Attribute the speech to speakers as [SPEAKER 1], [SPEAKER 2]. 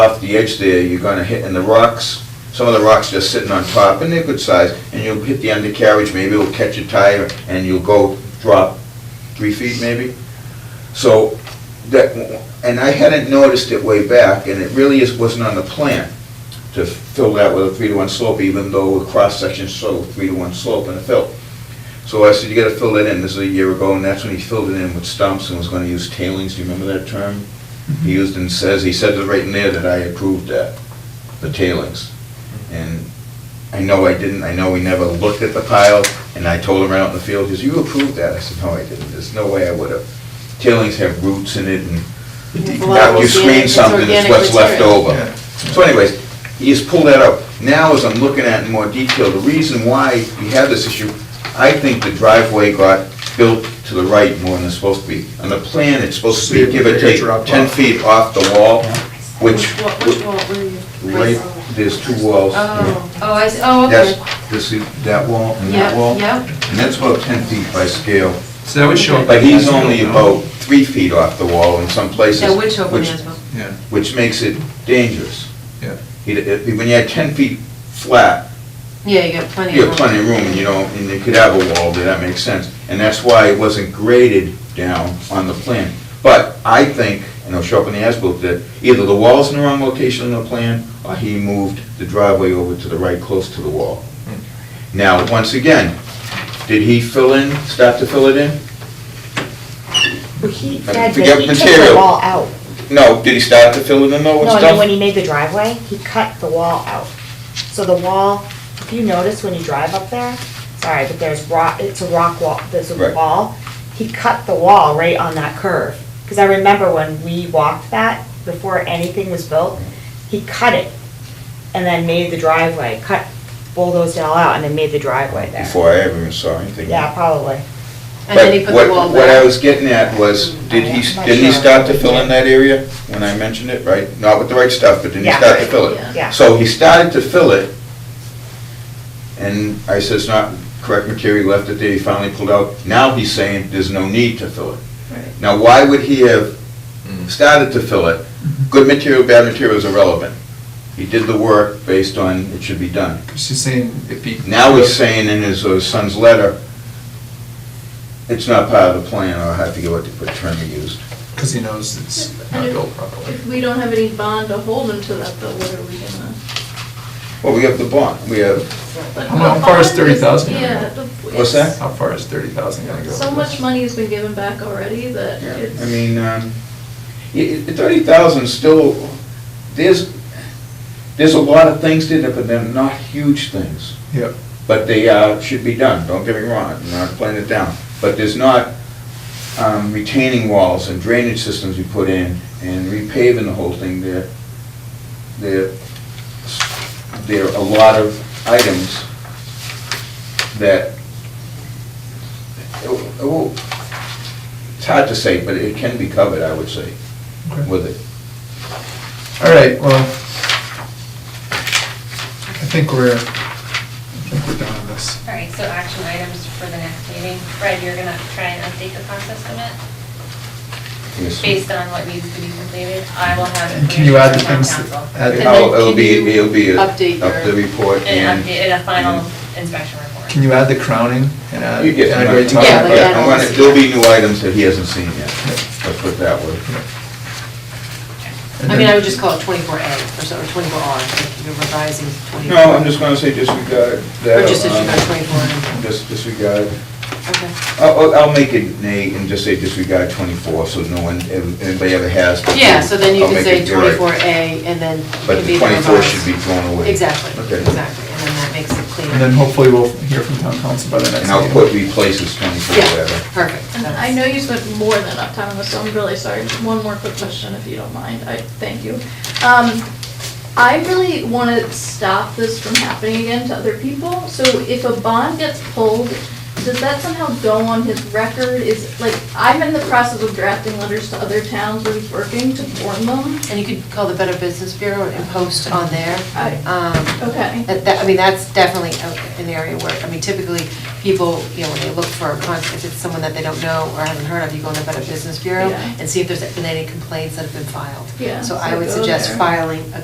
[SPEAKER 1] off the edge there, you're gonna hit in the rocks. Some of the rocks just sitting on top, and they're good size, and you'll hit the undercarriage, maybe it'll catch a tire, and you'll go drop three feet maybe. So, that, and I hadn't noticed it way back, and it really is, wasn't on the plan to fill that with a three to one slope, even though the cross-section showed three to one slope in the fill. So I said, you gotta fill that in, this is a year ago, and that's when he filled it in with stumps and was gonna use tailings, do you remember that term?
[SPEAKER 2] Mm-hmm.
[SPEAKER 1] He used and says, he said it right in there that I approved that, the tailings. And I know I didn't, I know we never looked at the pile, and I told him right out in the field, he says, you approved that, I said, no, I didn't, there's no way I would've. Tailings have roots in it, and
[SPEAKER 2] Well,
[SPEAKER 1] now you screen
[SPEAKER 2] organic- it's
[SPEAKER 1] something, it's
[SPEAKER 2] organic
[SPEAKER 1] what's left
[SPEAKER 2] material.
[SPEAKER 1] over. So anyways, he just pulled that out. Now, as I'm looking at it in more detail, the reason why we have this issue, I think the driveway got built to the right more than it's supposed to be. On the plan, it's supposed to be give or take
[SPEAKER 3] Drop off.
[SPEAKER 1] ten feet off the wall, which,
[SPEAKER 2] What, which wall, where are you?
[SPEAKER 1] right, there's two walls.
[SPEAKER 2] Oh, oh, I, see. oh,
[SPEAKER 1] That's,
[SPEAKER 2] okay.
[SPEAKER 1] this is that wall and that
[SPEAKER 2] Yeah,
[SPEAKER 1] wall.
[SPEAKER 2] yeah.
[SPEAKER 1] And that's about ten feet by scale.
[SPEAKER 3] So that would show up.
[SPEAKER 1] But he's
[SPEAKER 3] as well,
[SPEAKER 1] only
[SPEAKER 3] no?
[SPEAKER 1] about three feet off the wall in some places.
[SPEAKER 2] That would show up on
[SPEAKER 1] which-
[SPEAKER 2] the as
[SPEAKER 3] Yeah,
[SPEAKER 1] which makes it dangerous.
[SPEAKER 3] Yeah.
[SPEAKER 1] You- if- When you had 10 feet flat,
[SPEAKER 2] Yeah, you got plenty
[SPEAKER 1] you
[SPEAKER 2] of
[SPEAKER 1] have
[SPEAKER 2] room.
[SPEAKER 1] plenty of room, you know, and you could have a wall there, that makes sense. And that's why it wasn't graded down on the plan. But I think, and it'll show up in the as-built, that either the wall's in the wrong location on the plan, or he moved the driveway over to the right, close to the wall. Now, once again, did he fill in, start to fill it in?
[SPEAKER 4] Well, he,
[SPEAKER 1] I
[SPEAKER 4] had
[SPEAKER 1] forget
[SPEAKER 4] the- he took the
[SPEAKER 1] material.
[SPEAKER 4] wall out.
[SPEAKER 1] No, did he start to fill it in though with
[SPEAKER 4] No, I
[SPEAKER 1] stuff?
[SPEAKER 4] mean, when he made the driveway, he cut the wall out. So the wall, if you notice when you drive up there, sorry, but there's rock, it's a rock wall, there's
[SPEAKER 1] Right.
[SPEAKER 4] a wall. He cut the wall right on that curve. Because I remember when we walked that, before anything was built, he cut it and then made the driveway, cut, bulldozed it all out and then made the driveway there.
[SPEAKER 1] Before I ever even saw anything.
[SPEAKER 4] Yeah, probably.
[SPEAKER 2] And then he put
[SPEAKER 1] But
[SPEAKER 2] the
[SPEAKER 1] what-
[SPEAKER 2] wall
[SPEAKER 1] What I
[SPEAKER 2] back.
[SPEAKER 1] was getting at was, did he,
[SPEAKER 4] I'm not
[SPEAKER 1] didn't he
[SPEAKER 4] sure.
[SPEAKER 1] start to fill in that area when I mentioned it, right? Not with the right stuff, but didn't he
[SPEAKER 4] Yeah,
[SPEAKER 1] start to
[SPEAKER 4] right,
[SPEAKER 1] fill it?
[SPEAKER 4] yeah.
[SPEAKER 1] So he started to fill it, and I said, it's not correct material, he left it there, he finally pulled out. Now he's saying there's no need to fill it.
[SPEAKER 2] Right.
[SPEAKER 1] Now, why would he have started to fill it? Good material, bad material is irrelevant. He did the work based on it should be done.
[SPEAKER 3] she's saying if he.
[SPEAKER 1] Now he's saying in his uh, son's letter, it's not part of the plan, I'll have to get what the what term he used.
[SPEAKER 3] Because he knows it's not built properly.
[SPEAKER 5] If we don't have any bond to hold them to that, though, what are we gonna?
[SPEAKER 1] Well, we have the bond, we have,
[SPEAKER 5] but
[SPEAKER 3] How mu-
[SPEAKER 5] the
[SPEAKER 3] how far is
[SPEAKER 5] bond
[SPEAKER 3] 30,000 gonna
[SPEAKER 5] Yeah.
[SPEAKER 3] go?
[SPEAKER 5] the-
[SPEAKER 1] What's
[SPEAKER 5] it's-
[SPEAKER 3] How far is thirty thousand gonna go?
[SPEAKER 5] So much money has been given back already that
[SPEAKER 1] yeah,
[SPEAKER 5] it's.
[SPEAKER 1] I mean, um, thirty thousand still, there's, there's a lot of things in it, but they're not huge things.
[SPEAKER 3] Yep.
[SPEAKER 1] But they uh, should be done, don't get me wrong, I'm not playing it down. But there's not um, retaining walls and drainage systems we put in and repaving the whole thing there. There, there are a lot of items that, oh, oh, it's hard to say, but it can be covered, I would say,
[SPEAKER 3] Okay.
[SPEAKER 1] with it.
[SPEAKER 3] All right, well, I think we're, I think we're done on this.
[SPEAKER 6] All right, so action items for the next meeting. Fred, you're gonna try and update the cost estimate
[SPEAKER 1] Yes.
[SPEAKER 6] based on what needs to be completed. I will have.
[SPEAKER 3] And can you add the
[SPEAKER 6] information
[SPEAKER 3] things
[SPEAKER 6] from
[SPEAKER 3] that-
[SPEAKER 6] town council.
[SPEAKER 3] add the-
[SPEAKER 2] And then
[SPEAKER 1] Oh, It'll
[SPEAKER 2] can
[SPEAKER 1] be,
[SPEAKER 2] you
[SPEAKER 1] it'll be a-
[SPEAKER 2] update
[SPEAKER 1] up the
[SPEAKER 2] your-
[SPEAKER 1] report
[SPEAKER 6] And
[SPEAKER 1] and.
[SPEAKER 6] update, and a final
[SPEAKER 1] and-
[SPEAKER 6] inspection report.
[SPEAKER 3] Mm-hmm. Can you add the crowning and add?
[SPEAKER 1] You get,
[SPEAKER 3] add
[SPEAKER 1] my-
[SPEAKER 3] right to-
[SPEAKER 2] Yeah,
[SPEAKER 1] yeah,
[SPEAKER 2] like add
[SPEAKER 1] I'm
[SPEAKER 2] on
[SPEAKER 1] gonna-
[SPEAKER 2] to-
[SPEAKER 1] there'll be new items that he hasn't seen yet, let's put it that way.
[SPEAKER 3] And
[SPEAKER 2] I mean, I
[SPEAKER 3] then-
[SPEAKER 2] would just call it twenty-four A or so, or twenty-four R, if you're revising twenty-four.
[SPEAKER 1] No, I'm just gonna say disregard that.
[SPEAKER 2] Or just that you got
[SPEAKER 1] um,
[SPEAKER 2] twenty-four and,
[SPEAKER 1] Just disregard,
[SPEAKER 2] okay.
[SPEAKER 1] I'll, I'll- I'll make it nay and just say disregard twenty-four, so no one, if anybody ever has. to-
[SPEAKER 2] Yeah, so then you
[SPEAKER 1] I'll
[SPEAKER 2] can
[SPEAKER 1] make
[SPEAKER 2] say
[SPEAKER 1] it direct.
[SPEAKER 2] twenty-four A and then. it
[SPEAKER 1] But
[SPEAKER 2] can
[SPEAKER 1] the
[SPEAKER 2] be
[SPEAKER 1] twenty-four
[SPEAKER 2] revised.
[SPEAKER 1] should be thrown away.
[SPEAKER 2] Exactly,
[SPEAKER 1] Okay.
[SPEAKER 2] exactly, and then that makes it cleaner.
[SPEAKER 3] And then hopefully we'll hear from town council by the next
[SPEAKER 1] And
[SPEAKER 3] meeting.
[SPEAKER 1] I'll put replaces twenty-four,
[SPEAKER 2] Yeah,
[SPEAKER 1] whatever.
[SPEAKER 2] perfect.
[SPEAKER 5] And I know you spent more than enough time on this, so I'm really sorry. Just One more quick question, if you don't mind. I, thank you. Um, I really want to stop this from happening again to other people. So if a bond gets pulled, does that somehow go on his record? Is, like, I'm in the process of drafting letters to other towns where he's working to warn them.
[SPEAKER 2] And you could call the Better Business Bureau and post on there.
[SPEAKER 5] I-
[SPEAKER 2] Um,
[SPEAKER 5] Okay.
[SPEAKER 2] That, that- I mean, that's definitely a- an area where, I mean, typically, people, you know, when they look for a contract, if it's someone that they don't know or haven't heard of, you go in the Better Business Bureau
[SPEAKER 5] Yeah.
[SPEAKER 2] and see if there's been any complaints that have been filed.
[SPEAKER 5] Yeah,
[SPEAKER 2] So
[SPEAKER 5] so
[SPEAKER 2] I would
[SPEAKER 5] go
[SPEAKER 2] suggest
[SPEAKER 5] there.
[SPEAKER 2] filing a